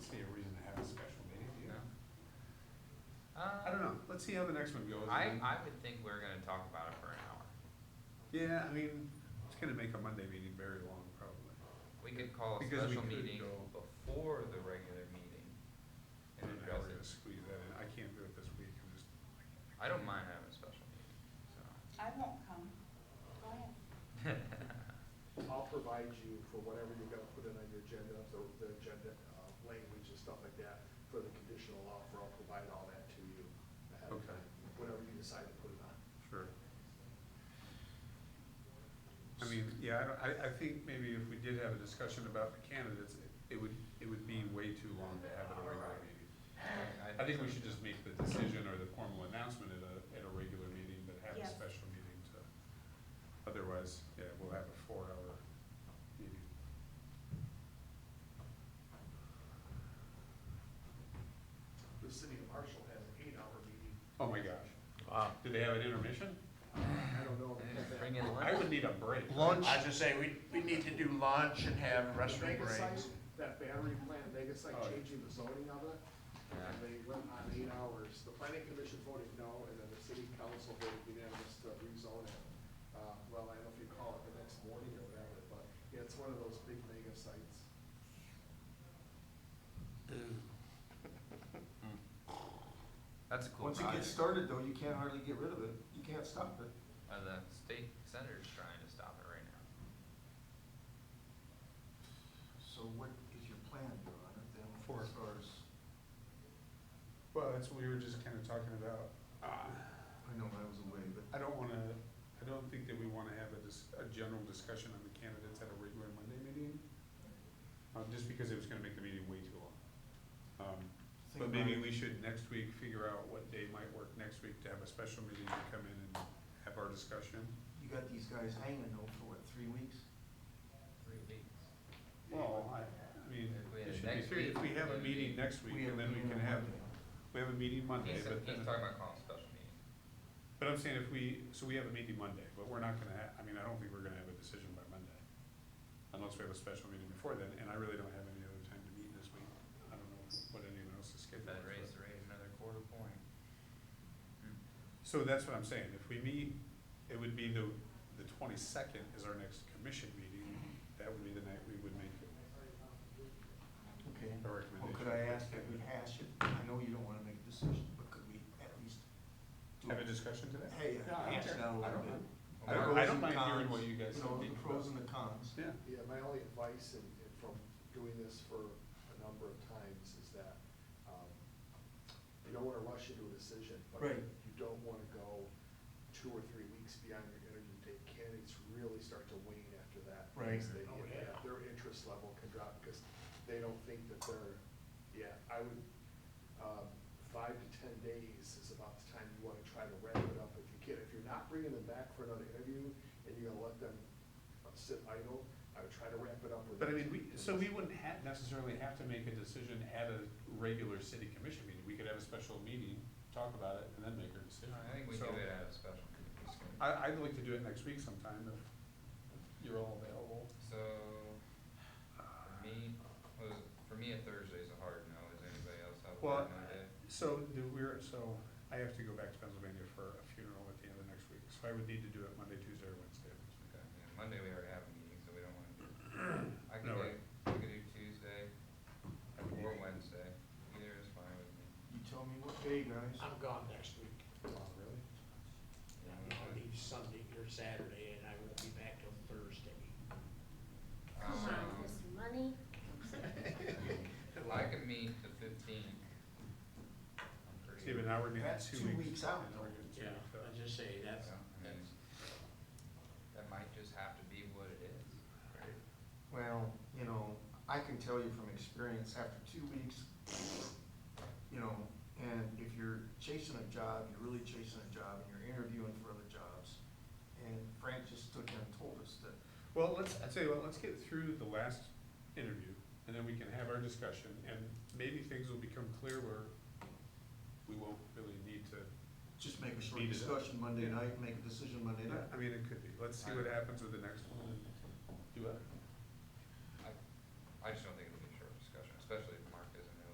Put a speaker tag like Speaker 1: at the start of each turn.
Speaker 1: Uh,
Speaker 2: I don't know, let's see how the next one goes.
Speaker 1: I,
Speaker 2: and then-
Speaker 1: I would think we're gonna talk about it for an hour.
Speaker 2: Yeah, I mean, it's gonna make a Monday meeting very long, probably.
Speaker 1: We could call a
Speaker 2: Because we
Speaker 1: special
Speaker 2: could
Speaker 1: meeting
Speaker 2: go-
Speaker 1: before the regular meeting
Speaker 2: And
Speaker 1: and
Speaker 2: then
Speaker 1: address
Speaker 2: we're gonna
Speaker 1: it.
Speaker 2: squeeze that in, I can't do it this week, I'm just.
Speaker 1: I don't mind having a special meeting, so.
Speaker 3: I won't come. Go ahead.
Speaker 4: I'll provide you for whatever you're gonna put in on your agenda, the, the agenda, uh, language and stuff like that for the conditional offer, I'll provide all that to you ahead of
Speaker 2: Okay.
Speaker 4: time, whatever you decide to put it on.
Speaker 2: Sure. I mean, yeah, I don't, I, I think maybe if we did have a discussion about the candidates, it- it would, it would be way too long to have at a regular meeting. I think we should just make the decision or the formal announcement at a, at a regular meeting, but have a
Speaker 3: Yes.
Speaker 2: special meeting to, otherwise, yeah, we'll have a four-hour meeting.
Speaker 4: The city of Marshall has an eight-hour meeting.
Speaker 2: Oh my gosh,
Speaker 5: Wow.
Speaker 2: do they have an intermission?
Speaker 4: I don't know.
Speaker 1: They didn't Bring in
Speaker 2: I
Speaker 1: lunch.
Speaker 2: would need a break.
Speaker 5: Lunch. I was just saying, we, we need to do lunch and have
Speaker 4: The
Speaker 5: restroom
Speaker 4: mega
Speaker 5: breaks.
Speaker 4: site, That battery plant, mega site
Speaker 2: Oh, yeah.
Speaker 4: changing the zoning of it, and
Speaker 1: Yeah.
Speaker 4: they went on eight hours. The planning commission voted no, and then the city council voted unanimous to rezone it. Uh, well, I don't know if you call it the next morning or whatever, but yeah, it's one of those big mega sites.
Speaker 1: That's a cool
Speaker 6: Once it
Speaker 1: project.
Speaker 6: gets started though, you can't hardly get rid of it, you can't stop it.
Speaker 1: Uh, the state senator's trying to stop it right now.
Speaker 6: So what is your plan, Your Honor, then,
Speaker 2: For-
Speaker 6: as far as,
Speaker 2: Well, that's what we were just kinda talking about. Ah.
Speaker 6: I know I was away, but
Speaker 2: I don't wanna, I don't think that we wanna have a dis- a general discussion on the candidates at a regular Monday meeting. Uh, just because it was gonna make the meeting way too long. Um,
Speaker 6: Think
Speaker 2: but
Speaker 6: about
Speaker 2: maybe
Speaker 6: it.
Speaker 2: we should next week figure out what day might work next week to have a special meeting to come in and have our discussion.
Speaker 6: you got these guys hanging though for what, three weeks?
Speaker 1: Three weeks.
Speaker 2: Well, I, I mean,
Speaker 1: If we had
Speaker 2: it
Speaker 1: it
Speaker 2: should be
Speaker 1: next
Speaker 2: three, if
Speaker 1: week,
Speaker 2: we have a
Speaker 1: it'd
Speaker 2: meeting
Speaker 1: be-
Speaker 2: next week,
Speaker 6: have
Speaker 2: and then we
Speaker 6: meeting
Speaker 2: can
Speaker 6: on
Speaker 2: have,
Speaker 6: Monday.
Speaker 2: we have a meeting Monday,
Speaker 1: He's,
Speaker 2: but then.
Speaker 1: he's talking about calling a special meeting.
Speaker 2: But I'm saying if we, so we have a meeting Monday, but we're not gonna, ha- I mean, I don't think we're gonna have a decision by Monday. Unless we have a special meeting before then, and I really don't have any other time to meet this week. I don't know what anyone else's schedule
Speaker 1: That
Speaker 2: is.
Speaker 1: raised the rate another quarter point.
Speaker 2: but- So that's what I'm saying, if we meet, it would be the, the twenty-second is our next commission meeting. That would be the night we would make
Speaker 6: Okay,
Speaker 2: a
Speaker 6: well,
Speaker 2: recommendation.
Speaker 6: could I ask that we hash it, I know you don't wanna make a decision, but could we at least do
Speaker 2: Have a
Speaker 6: it?
Speaker 2: discussion today?
Speaker 6: Hey,
Speaker 2: Yeah, I don't
Speaker 6: hash it
Speaker 2: care. I
Speaker 6: out a little
Speaker 2: don't
Speaker 6: bit.
Speaker 2: mind.
Speaker 1: I don't-
Speaker 6: Pros
Speaker 2: I don't
Speaker 6: and
Speaker 2: mind hearing
Speaker 6: cons,
Speaker 2: what you guys
Speaker 6: know,
Speaker 2: think
Speaker 6: the
Speaker 2: about.
Speaker 6: pros and the cons.
Speaker 2: Yeah.
Speaker 4: Yeah, my only advice in, in from doing this for a number of times is that, um, you don't wanna rush into a decision. but
Speaker 6: Right.
Speaker 4: You don't wanna go two or three weeks beyond your interview date. Candidates really start to wane after that.
Speaker 6: Right.
Speaker 4: because they-
Speaker 6: Oh,
Speaker 4: yeah, Their interest level can drop because they don't think that they're, yeah, I would, um, five to ten days is about the time you wanna try to wrap it up if you can. If you're not bringing them back for another interview and you're gonna let them uh, sit idle, I would try to wrap it up with.
Speaker 2: But I mean, we, so we wouldn't ha necessarily have to make a decision at a regular city commission meeting, we could have a special meeting, talk about it, and then make our decision.
Speaker 1: I think we do
Speaker 2: So,
Speaker 1: it at a special meeting. It's gonna-
Speaker 2: I, I'd like to do it next week sometime if you're all available.
Speaker 1: So, for me, was, for me, a Thursday's a hard no, does anybody else have a
Speaker 2: Well,
Speaker 1: hard no day?
Speaker 2: so do we're, so I have to go back to Pennsylvania for a funeral at the end of next week, so I would need to do it Monday, Tuesday, or Wednesday. of this week.
Speaker 1: Okay, yeah, Monday we already have a meeting, so we don't wanna do. I could
Speaker 2: No
Speaker 1: do,
Speaker 2: way.
Speaker 1: we could do Tuesday
Speaker 2: I would need-
Speaker 1: or Wednesday, either is fine with me.
Speaker 6: You tell me what day, guys.
Speaker 7: I'm gone next week.
Speaker 2: Oh, really?
Speaker 7: I'll leave Sunday or Saturday, and I won't be back till Thursday.
Speaker 8: Come
Speaker 1: Um,
Speaker 8: on, Miss Money.
Speaker 1: I could meet the fifteenth.
Speaker 2: Steven, now we're getting
Speaker 6: That's
Speaker 2: two weeks.
Speaker 6: two weeks out.
Speaker 2: and now we're getting two
Speaker 7: Yeah,
Speaker 2: weeks out.
Speaker 7: I just say, that's,
Speaker 1: Yeah, I mean,
Speaker 7: that's,
Speaker 1: That might just have to be what it is.
Speaker 6: Well, you know, I can tell you from experience, after two weeks, you know, and if you're chasing a job, you're really chasing a job, and you're interviewing for other jobs, and Frank just stood there and told us that,
Speaker 2: Well, let's, I tell you what, let's get through the last interview, and then we can have our discussion, and maybe things will become clear where we won't really need to.
Speaker 6: just make a short
Speaker 2: Beat it up.
Speaker 6: discussion Monday night, make a decision Monday night.
Speaker 2: I mean, it could be, let's see what happens with the next one and do it.
Speaker 1: I just don't